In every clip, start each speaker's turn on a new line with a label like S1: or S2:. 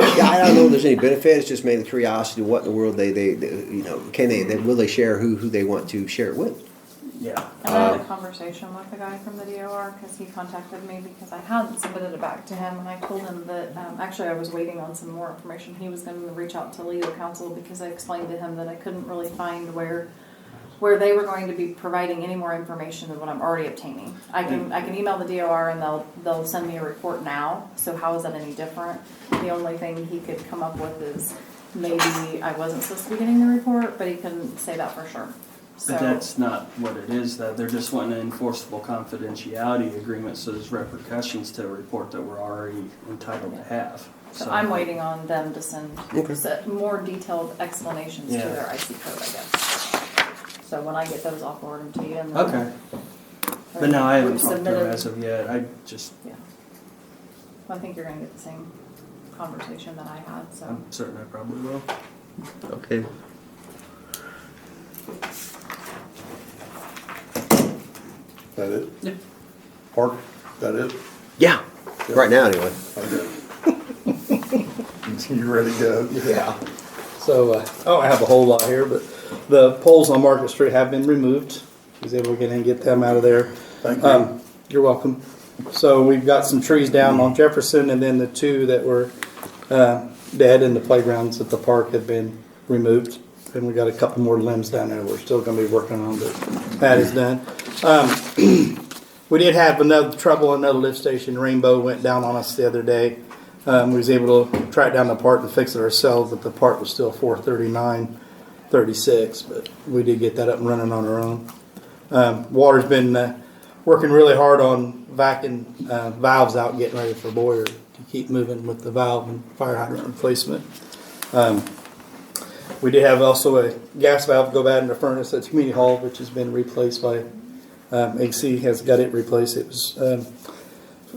S1: I don't know if there's any benefit. It's just mainly curiosity. What in the world they, they, they you know, can they, they will they share who who they want to share it with?
S2: Yeah.
S3: And I had a conversation with the guy from the DOR because he contacted me because I hadn't submitted it back to him, and I told him that um, actually I was waiting on some more information. He was going to reach out to legal counsel because I explained to him that I couldn't really find where where they were going to be providing any more information than what I'm already obtaining. I
S2: Mm.
S3: can I can email the DOR and they'll they'll send me a report now. So how is that any different? The only thing he could come up with is maybe I wasn't supposed to be getting the report, but he couldn't say that for sure. So
S2: But that's not what it is, though. They're just wanting an enforceable confidentiality agreement, so there's repercussions to a report that we're already entitled to have.
S3: So I'm waiting on them to send
S1: Okay.
S3: se- more detailed explanations to
S2: Yeah.
S3: their IC code, I guess. So when I get those, I'll forward them to you and. then-
S2: Okay, but no, I haven't
S3: We've
S2: talked to her
S3: submitted-
S2: as of yet. I just,
S3: Yeah. Well, I think you're gonna get the same conversation that I had, so.
S2: I'm certain I probably will.
S1: Okay.
S4: That it?
S2: Yeah.
S4: Park, that it?
S1: Yeah. Right now, anyway.
S4: You ready to go?
S5: Yeah. So uh, I don't have a whole lot here, but the poles on Market Street have been removed. I was able to get in and get them out of there.
S4: Thank
S5: Um, You're welcome. So we've got some trees down on Jefferson and then the two that were uh, dead in the playgrounds at the park have been removed. And we got a couple more limbs down there we're still gonna be working on, but that is done. Um, We did have another trouble, another lift station, Rainbow went down on us the other day. Um, We was able to track down the part and fix it ourselves, but the part was still four thirty-nine, thirty-six, but we did get that up and running on our own. Um, Water's been uh, working really hard on vacuum uh, valves out, getting ready for Boyer to keep moving with the valve and fire hydrant replacement. Um, we did have also a gas valve go bad in the furnace at the community hall, which has been replaced by um, AC has got it replaced. It was um,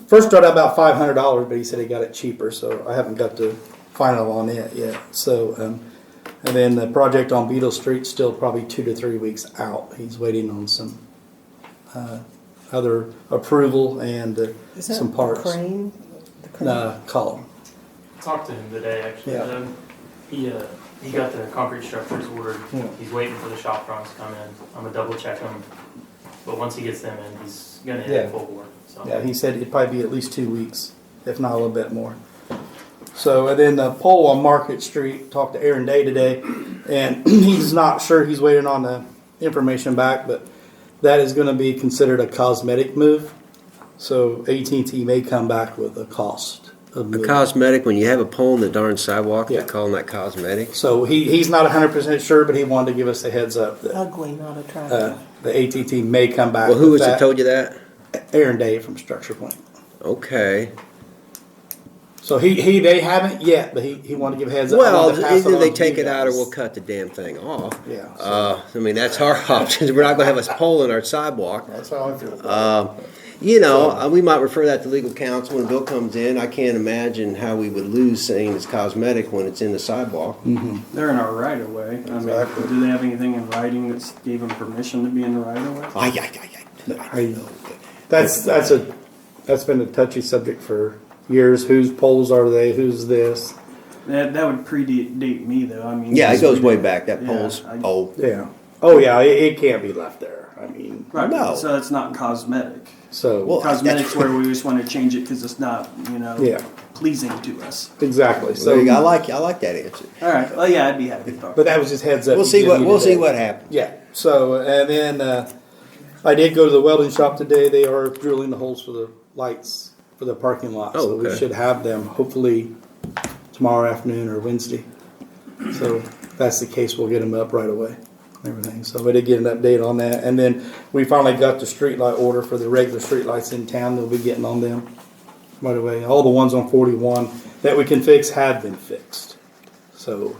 S5: first started out about five hundred dollars, but he said he got it cheaper, so I haven't got the final on it yet. So, um, and then the project on Beetle Street still probably two to three weeks out. He's waiting on some uh, other approval and uh,
S6: Is that
S5: some
S6: the
S5: parts.
S6: crane? The crane?
S5: Uh, column.
S7: Talked to him today, actually.
S5: Yeah.
S7: Um, He, uh, he got the concrete structures ordered.
S5: Yeah.
S7: He's waiting for the shop fronts to come in. I'm gonna double check them. But once he gets them in, he's gonna
S5: Yeah.
S7: hit full bore, so.
S5: Yeah, he said it'd probably be at least two weeks, if not a little bit more. So, and then the pole on Market Street, talked to Aaron Day today, and he's not sure, he's waiting on the information back, but that is gonna be considered a cosmetic move. So AT&T may come back with a cost of
S1: A
S5: moving.
S1: cosmetic. When you have a pole in the darn sidewalk,
S5: Yeah.
S1: they're calling that cosmetic.
S5: So he, he's not hundred percent sure, but he wanted to give us a heads up that,
S6: Ugly, not attractive.
S5: uh, the AT&T may come back
S1: Well, who
S5: with
S1: was it
S5: that.
S1: told you that?
S5: Aaron Day from Structure Point.
S1: Okay.
S5: So he, he they haven't yet, but he, he wanted to give heads up. I
S1: Well,
S5: wanted to pass
S1: either
S5: on
S1: they
S5: to
S1: take
S5: you
S1: it out or
S5: guys.
S1: we'll cut the damn thing off.
S5: Yeah, so-
S1: Uh, I mean, that's our options. We're not gonna have us pole in our sidewalk.
S4: That's how I feel.
S1: Um, You know, uh, we might refer that to legal counsel when Bill comes in. I can't imagine how we would lose saying it's cosmetic when it's in the sidewalk.
S2: They're in our right of way. I mean,
S4: Exactly.
S2: do they have anything in writing that's gave them permission to be in the right of way?
S1: Ay, ay, ay, ay. I know.
S5: That's that's a that's been a touchy subject for years. Whose poles are they? Who's this?
S2: That, that would predate me, though. I mean.
S1: Yeah, it goes way back. That pole's
S2: Yeah, I-
S1: old.
S5: Yeah. Oh yeah, it, it can't be left there. I mean,
S1: No.
S2: Right, so it's not cosmetic.
S5: so
S1: Well,
S2: Cosmetics where we just want to change it because it's not, you know,
S5: Yeah.
S2: pleasing to us.
S5: exactly.
S1: So
S5: So,
S1: I like, I like that answer.
S2: All right, well, yeah, I'd be happy to talk.
S5: but that was just heads up.
S1: We'll
S5: to
S1: see
S5: give
S1: what,
S5: you
S1: we'll see
S5: today.
S1: what happens.
S5: Yeah. So and then uh, I did go to the welding shop today. They are drilling the holes for the lights for the parking lot.
S1: Oh,
S5: so we
S1: okay.
S5: should have them hopefully tomorrow afternoon or Wednesday. So if that's the case, we'll get them up right away. and Everything. So we did get an update on that, and then we finally got the streetlight order for the regular streetlights in town. They'll be getting on them right away. All the ones on 41 that we can fix have been fixed. So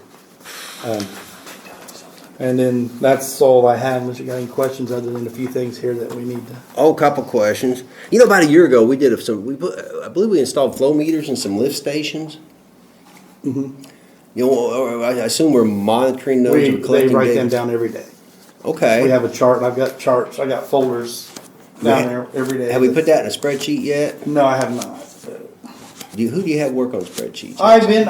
S5: and then that's all I have, unless you got any questions other than a few things here that we need to.
S1: Oh, couple questions. You know, about a year ago, we did some, we put, I believe we installed flow meters in some lift stations. You know, I I assume we're monitoring those
S5: Mm-hmm. We,
S1: or
S5: they
S1: collecting
S5: write them
S1: data.
S5: down every day.
S1: Okay.
S5: We have a chart, and I've got charts, I got folders down there every day.
S1: Have we put that in a spreadsheet yet?
S5: No, I have not.
S1: Do you, who do you have work on spreadsheets?
S5: I've been,